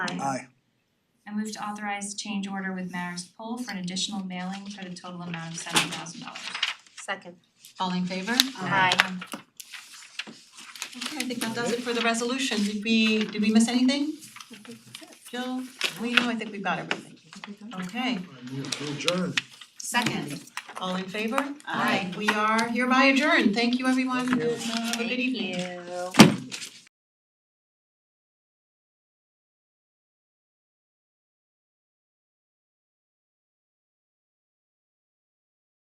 Aye. Aye. I move to authorize change order with Marist Poll for an additional mailing for the total amount of seven thousand dollars. Second. All in favor? Aye. Okay, I think that does it for the resolution. Did we, did we miss anything? Jill, we know, I think we've got everything. Okay, I move to adjourn. Second. all in favor? We are hereby adjourned. Thank you, everyone. Have a good evening. Thank you.